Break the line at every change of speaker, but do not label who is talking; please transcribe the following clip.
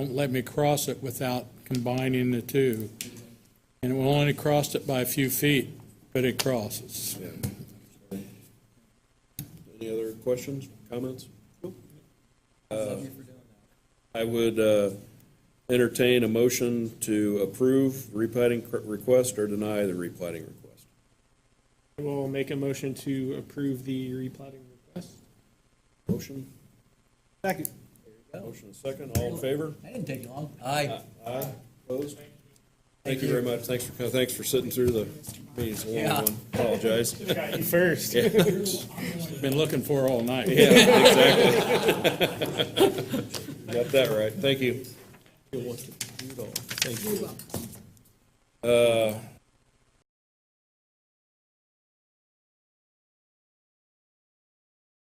won't let me cross it without combining the two. And it will only cross it by a few feet, but it crosses.
Any other questions, comments? Uh, I would uh, entertain a motion to approve replating cr- request or deny the replating request.
I will make a motion to approve the replating request.
Motion,
Second.
motion and second, all in favor?
That didn't take you long. Aye.
Aye. Opposed? Thank you very much, thanks for, co- thanks for sitting through the meeting, it's a long
Yeah.
one, apologize.
Got you first.
Been looking for all night.
Yeah, exactly. Got that right, thank you. Thank you.